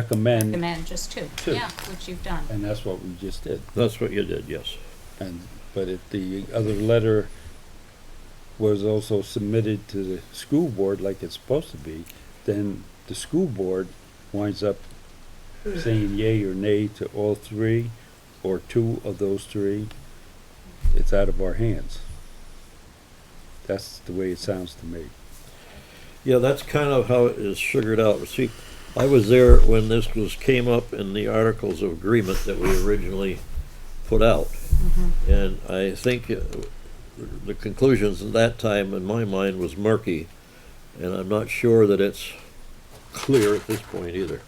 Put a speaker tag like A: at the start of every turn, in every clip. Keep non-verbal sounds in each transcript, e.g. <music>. A: recommend,
B: recommend just two,
A: Two.
B: yeah, which you've done.
A: and that's what we just did.
C: That's what you did, yes.
A: And, but it, the other letter was also submitted to the school board like it's supposed to be, then the school board winds up saying yay or nay to all three, or two of those three. It's out of our hands. That's the way it sounds to me.
C: Yeah, that's kind of how it is sugared out. See, I was there when this was, came up in the articles of agreement that we originally put out. And I think uh, the conclusions at that time, in my mind, was murky. And I'm not sure that it's clear at this point either,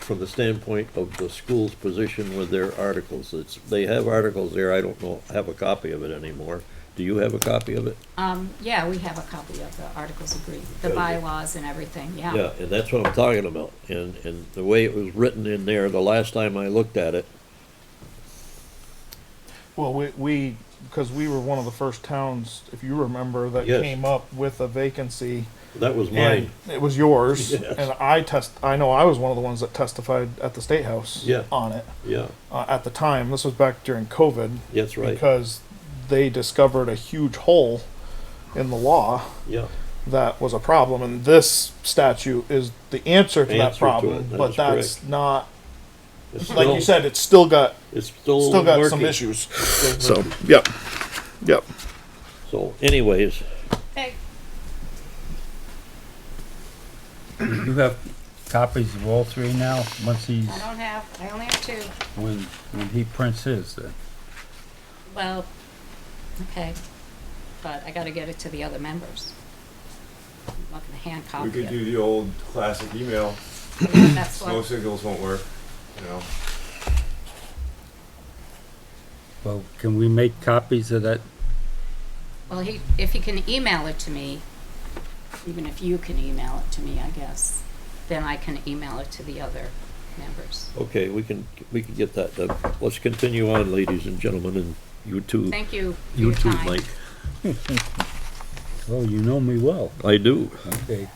C: from the standpoint of the school's position with their articles. It's, they have articles there, I don't know, have a copy of it anymore. Do you have a copy of it?
B: Um, yeah, we have a copy of the Articles of Agreement, the
C: Okay.
B: bylaws and everything, yeah.
C: Yeah, and that's what I'm talking about, and, and the way it was written in there, the last time I looked at it,
D: Well, we, we, because we were one of the first towns, if you remember, that
C: Yes.
D: came up with a vacancy.
C: that was
D: and
C: mine.
D: It was
C: <laughs>
D: yours,
C: Yes.
D: and I test, I know I was one of the ones that testified at the State House.
C: Yeah.
D: On it,
C: Yeah,
D: uh, at the time, this was back during COVID,
C: that's right,
D: because they discovered a huge hole in the law
C: yeah.
D: that was a problem, and this statute is the answer to
C: Answer to
D: that
C: it,
D: problem,
C: that
D: but
C: is
D: that's not,
C: It's
D: like
C: still-
D: you said, it's still got,
C: It's still.
D: still got some
C: murky.
D: issues.
C: Still
D: So,
C: murky.
D: yep, yep.
C: So anyways,
B: Hey,
A: You have copies of all three now, once he's,
B: I don't have, I only have two.
A: when, when he prints his, then.
B: Well, okay, but I gotta get it to the other members. I'm not gonna hand
E: We
B: copy
E: could do
B: it.
E: the old classic email,
B: That's
E: smoke
B: what,
E: signals won't work, you know.
A: Well, can we make copies of that?
B: well, he, if he can email it to me, even if you can email it to me, I guess, then I can email it to the other members.
C: okay, we can, we can get that done. Let's continue on, ladies and gentlemen, and you too,
B: Thank you for
C: you
B: your
C: too,
B: time.
C: Mike.
A: Oh, you know me well.
C: I do.
A: Okay.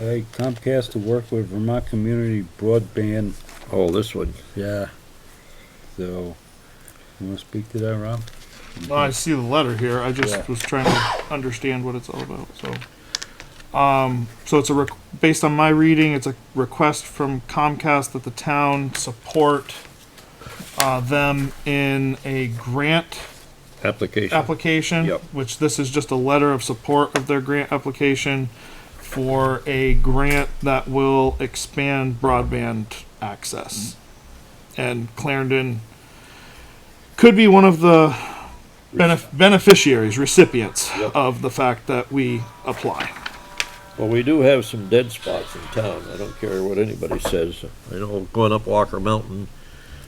A: All right, Comcast to work with Vermont Community Broadband,
C: Oh, this one,
A: yeah. So, you wanna speak to that, Rob?
D: Well, I see the letter here. I just
A: Yeah.
D: was trying to understand what it's all about. So, um, so it's a req based on my reading, it's a request from Comcast that the town support uh, them in a grant
C: application.
D: application,
C: Yep.
D: which this is just a letter of support of their grant application for a grant that will expand broadband access. And Clarendon could be one of the benef- beneficiaries, recipients
C: Yep.
D: of the fact that we apply.
C: Well, we do have some dead spots in town. I don't care what anybody says. I know going up Walker Mountain,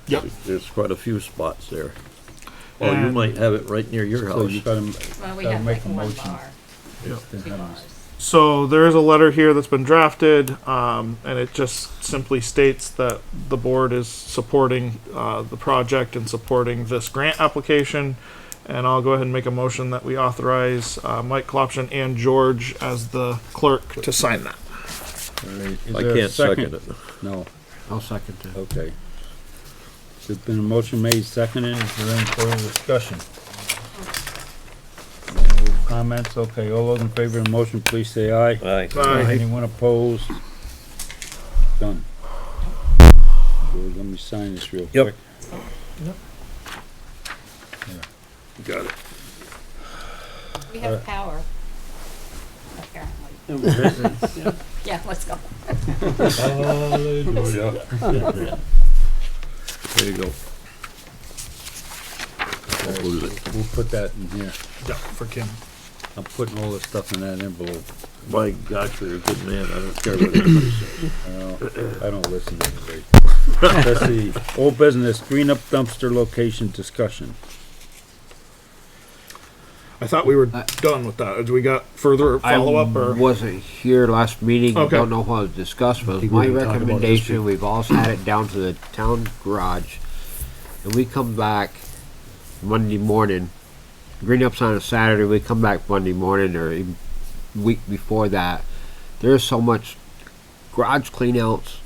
D: Yep.
C: There's quite a few spots there. Well, you
D: And-
C: might have it right near your
A: So you
C: house.
A: gotta,
B: Well, we
A: Gotta
B: have
A: make
B: like
A: a
B: one
A: motion.
B: bar, two bars.
D: So there is a letter here that's been drafted, um, and it just simply states that the board is supporting uh, the project and supporting this grant application. And I'll go ahead and make a motion that we authorize uh, Mike Klopshin and George as the clerk to sign that.
A: alright.
C: I can't second it.
A: No,
F: I'll second that.
A: okay. There's been a motion made, seconded, is there any further discussion? No Comments, okay, all those in favor of the motion, please say aye.
C: Aye.
A: Anyone opposed? Done. So Let me sign this real
C: Yep.
A: quick.
C: Got it.
B: We have power, apparently. Yeah, let's go.
A: <laughs>
C: There you go. Don't lose it.
A: We'll put that in here.
D: Yeah, for Kim.
A: I'm putting all this stuff in that envelope.
C: By God, you're a good man. I don't care what anybody says.
A: Uh, I don't listen to
C: <laughs>
A: anybody. Let's see, old business, green up dumpster location discussion.
D: I thought we were
F: I-
D: done with that. Did we got further follow up
F: I
D: or?
F: wasn't here last meeting.
D: Okay.
F: Don't know what was discussed, but
A: think we
F: my
A: can talk about this
F: recommendation, we've all had it down to the town garage. And we come back Monday morning, green ups on a Saturday, we come back Monday morning or even week before that. There's so much garage cleanouts,